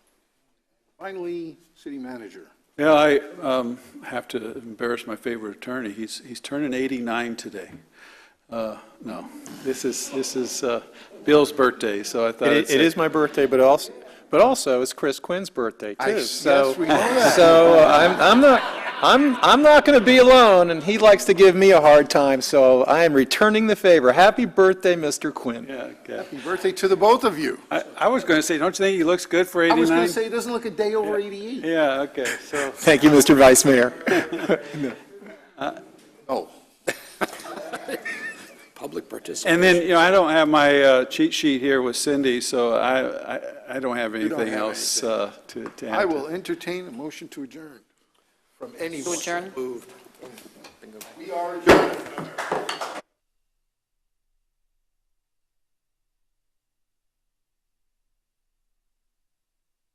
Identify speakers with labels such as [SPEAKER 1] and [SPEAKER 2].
[SPEAKER 1] Finally, city manager.
[SPEAKER 2] Yeah, I um, have to embarrass my favorite attorney. He's, he's turning 89 today. Uh, No, this is, this is uh, Bill's birthday, so I thought. I'd
[SPEAKER 3] It i- it
[SPEAKER 2] say-
[SPEAKER 3] is my birthday, but also, but also it's Chris Quinn's birthday
[SPEAKER 1] I-
[SPEAKER 3] too.
[SPEAKER 1] yes,
[SPEAKER 3] So,
[SPEAKER 1] we know that.
[SPEAKER 3] so uh, I'm, I'm not, I'm, I'm not going to be alone, and he likes to give me a hard time, so I am returning the favor. Happy birthday, Mr. Quinn.
[SPEAKER 2] Yeah, okay.
[SPEAKER 1] Happy birthday to the both of you.
[SPEAKER 2] I, I was going to say, don't you think he looks good for
[SPEAKER 1] I
[SPEAKER 2] 89?
[SPEAKER 1] was going to say, it doesn't look a E. day over 88.
[SPEAKER 2] Yeah, okay, so.
[SPEAKER 3] Thank you, Mr. Vice Mayor.
[SPEAKER 1] Oh,
[SPEAKER 4] Public participation.
[SPEAKER 2] And then, you know, I don't have my uh, cheat sheet here with Cindy, so I, I- I don't have
[SPEAKER 1] don't
[SPEAKER 2] anything
[SPEAKER 1] have
[SPEAKER 2] else uh, to to add.
[SPEAKER 1] I
[SPEAKER 2] to-
[SPEAKER 1] will entertain a motion to adjourn from anyone.
[SPEAKER 5] adjourn?
[SPEAKER 1] We are adjourned.